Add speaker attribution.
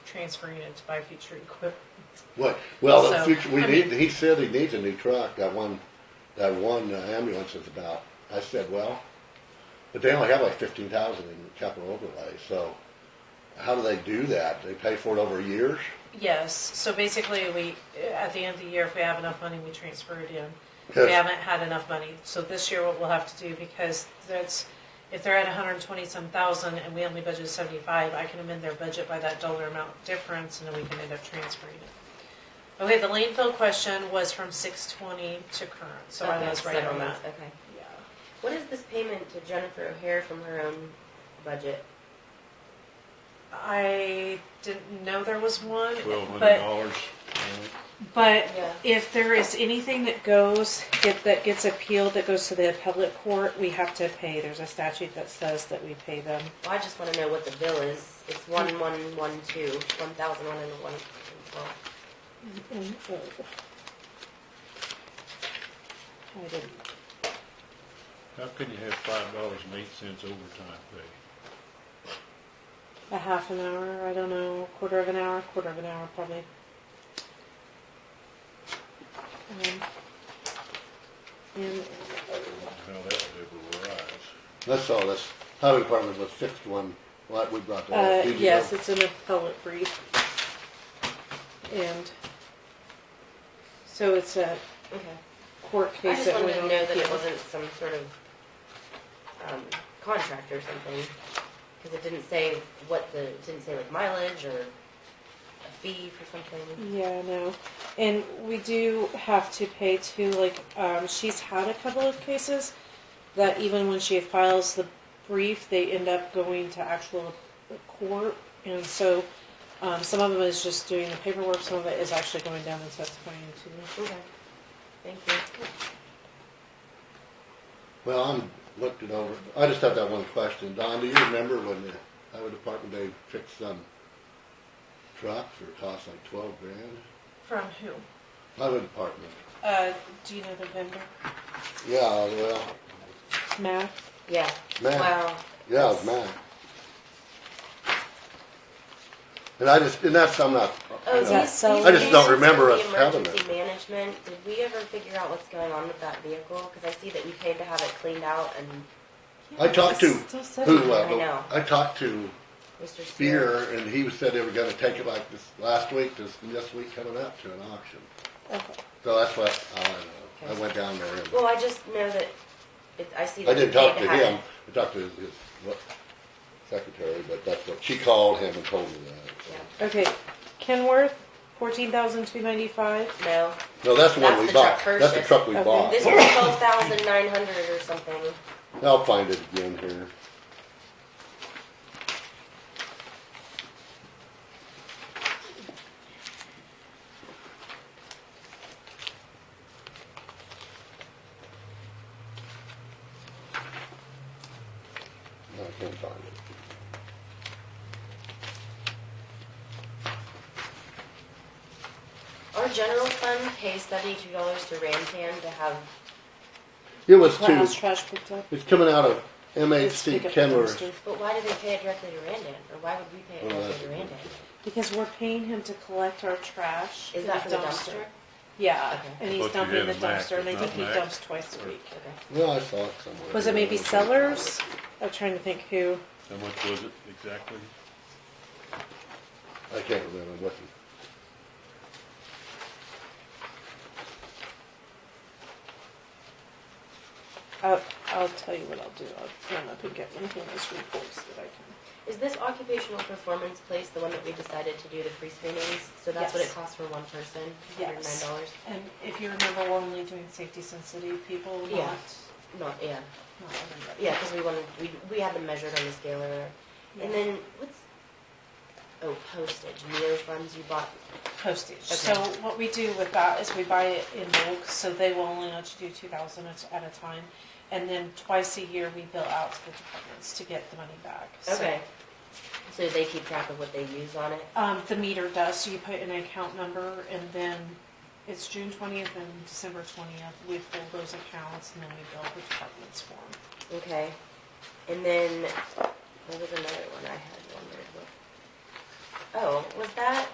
Speaker 1: transferring it to buy future equipment.
Speaker 2: What, well, in
Speaker 1: So,
Speaker 2: future, we
Speaker 1: I
Speaker 2: need,
Speaker 1: mean-
Speaker 2: he said he needs a new truck, that one, that one uh, ambulance is about, I said, well, but they only have like fifteen thousand in capital overlay, so how do they do that? They pay for it over years?
Speaker 1: Yes, so basically, we, at the end of the year, if we have enough money, we transfer it in. If
Speaker 2: Yes.
Speaker 1: We haven't had enough money, so this year what we'll have to do, because that's, if they're at hundred and twenty-some thousand and we only budgeted seventy-five, I can amend their budget by that dollar amount difference, and then we can end up transferring it. Okay, the landfill question was from six twenty to current, so I
Speaker 3: Okay,
Speaker 1: was right on that.
Speaker 3: settlements, Okay.
Speaker 1: Yeah.
Speaker 3: What is this payment to Jennifer O'Hare from her own budget?
Speaker 1: I didn't know there was one,
Speaker 4: twelve hundred
Speaker 1: but
Speaker 4: dollars.
Speaker 1: But
Speaker 3: Yeah.
Speaker 1: if there is anything that goes, get, that gets appealed, that goes to the appellate court, we have to pay. There's a statute that says that we pay them.
Speaker 3: Well, I just wanna know what the bill is. It's one one one two, one thousand one and one twelve.
Speaker 1: I didn't,
Speaker 4: How can you have five dollars and eight cents overtime pay?
Speaker 1: a half an hour, I don't know, quarter of an hour, quarter of an hour probably. Um, And,
Speaker 4: How that would ever rise.
Speaker 2: That's all, this highway department was fixed one, what we brought that
Speaker 1: uh,
Speaker 2: up. Did you
Speaker 1: yes,
Speaker 2: know?
Speaker 1: it's an appellate brief. And so it's a
Speaker 3: Okay.
Speaker 1: court
Speaker 3: I
Speaker 1: case
Speaker 3: just
Speaker 1: that
Speaker 3: wanted
Speaker 1: went
Speaker 3: to
Speaker 1: on
Speaker 3: know that it
Speaker 1: appeal.
Speaker 3: wasn't some sort of, um, contract or something. Cause it didn't say what the, it didn't say like mileage or a fee for something.
Speaker 1: Yeah, no. And we do have to pay too, like, um, she's had a couple of cases that even when she files the brief, they end up going to actual court. And so, um, some of them is just doing the paperwork, some of it is actually going down and testifying too.
Speaker 3: Okay. Thank you.
Speaker 2: Well, I'm, looked it over, I just have that one question, Don, do you remember when the highway department, they fixed some truck for it cost like twelve grand?
Speaker 1: From who?
Speaker 2: Highway department,
Speaker 1: Uh, do you know the vendor?
Speaker 2: yeah, well,
Speaker 1: Matt?
Speaker 3: Yeah.
Speaker 2: man.
Speaker 3: Wow.
Speaker 2: Yeah, it was mine. And I just, and that's, I'm not,
Speaker 3: Oh,
Speaker 2: you
Speaker 1: Is
Speaker 2: know,
Speaker 1: that
Speaker 3: these-
Speaker 1: so?
Speaker 3: these
Speaker 1: I
Speaker 2: just don't
Speaker 3: vans
Speaker 2: remember
Speaker 3: are
Speaker 2: us
Speaker 3: the
Speaker 2: having
Speaker 3: Emergency management, did we ever figure out what's going on with that vehicle? Cause I see that we paid to have it cleaned out and
Speaker 2: I talked to
Speaker 1: Still said
Speaker 2: who,
Speaker 1: it.
Speaker 2: uh,
Speaker 3: I know.
Speaker 2: I talked to
Speaker 3: Mr. Spear.
Speaker 2: Spear, and he said they were gonna take it like this last week, this, this week coming up to an auction.
Speaker 1: Okay.
Speaker 2: So that's what, all I know, I went down there and,
Speaker 3: Well, I just know that, it, I see
Speaker 2: I
Speaker 3: that we
Speaker 2: didn't
Speaker 3: paid to have
Speaker 2: talk
Speaker 3: it.
Speaker 2: to him, I talked to his, his what, secretary, but that's what, she called him and told me that.
Speaker 3: Yeah.
Speaker 1: Okay, Kenworth, fourteen thousand two ninety-five.
Speaker 3: No,
Speaker 2: No, that's the one
Speaker 3: That's
Speaker 2: we
Speaker 3: the truck
Speaker 2: bought, that's the
Speaker 3: purchase.
Speaker 2: truck we
Speaker 1: Okay.
Speaker 2: bought.
Speaker 3: this was twelve thousand nine hundred or something.
Speaker 2: I'll find it again here. No, I can't find it.
Speaker 3: Our general fund pays seventy-two dollars to Rantan to have,
Speaker 2: It was
Speaker 1: House
Speaker 2: two,
Speaker 1: trash picked up.
Speaker 2: it's coming out of
Speaker 1: Let's
Speaker 2: MHC
Speaker 1: pick up the
Speaker 2: Kenworth.
Speaker 1: dumpster.
Speaker 3: but why do they pay it directly to Randan? Or why would we pay it
Speaker 2: Well,
Speaker 3: directly
Speaker 2: that's-
Speaker 3: to Randan?
Speaker 1: Because we're paying him to collect our trash.
Speaker 3: Is
Speaker 1: in
Speaker 3: that for the dumpster?
Speaker 1: Yeah,
Speaker 3: Okay.
Speaker 1: and he's
Speaker 4: But you
Speaker 1: dumping the
Speaker 4: had a Mac,
Speaker 1: dumpster, and I
Speaker 4: it's
Speaker 1: think
Speaker 4: not
Speaker 1: he
Speaker 4: Mac.
Speaker 1: dumps twice a week.
Speaker 3: Okay.
Speaker 2: Well, I saw it somewhere.
Speaker 1: Was it maybe Sellers? I'm trying to think who.
Speaker 4: How much was it exactly?
Speaker 2: I can't remember, what it?
Speaker 1: I'll, I'll tell you what I'll do. I'll run up and get one of those reports that I can.
Speaker 3: Is this occupational performance place the one that we decided to do the free screenings? So that's what
Speaker 1: Yes.
Speaker 3: it costs for one person, hundred nine
Speaker 1: Yes.
Speaker 3: dollars?
Speaker 1: And if you remember, we're only doing safety sensitive people, not,
Speaker 3: Yeah. Not, yeah,
Speaker 1: not everybody.
Speaker 3: yeah, because we wanted, we, we had them measured on the scaler. And then, what's, oh, postage, Neo funds you bought,
Speaker 1: postage.
Speaker 3: Okay.
Speaker 1: So what we do with that is we buy it in bulk, so they will only let you do two thousand at at a time. And then twice a year, we bill out to the departments to get the money back. So,
Speaker 3: okay. So they keep track of what they use on it?
Speaker 1: Um, the meter does, so you put an account number and then it's June twentieth and December twentieth, we pull those accounts and then we bill the departments for them.
Speaker 3: Okay. And then, there was another one I had on there, but. Oh, was that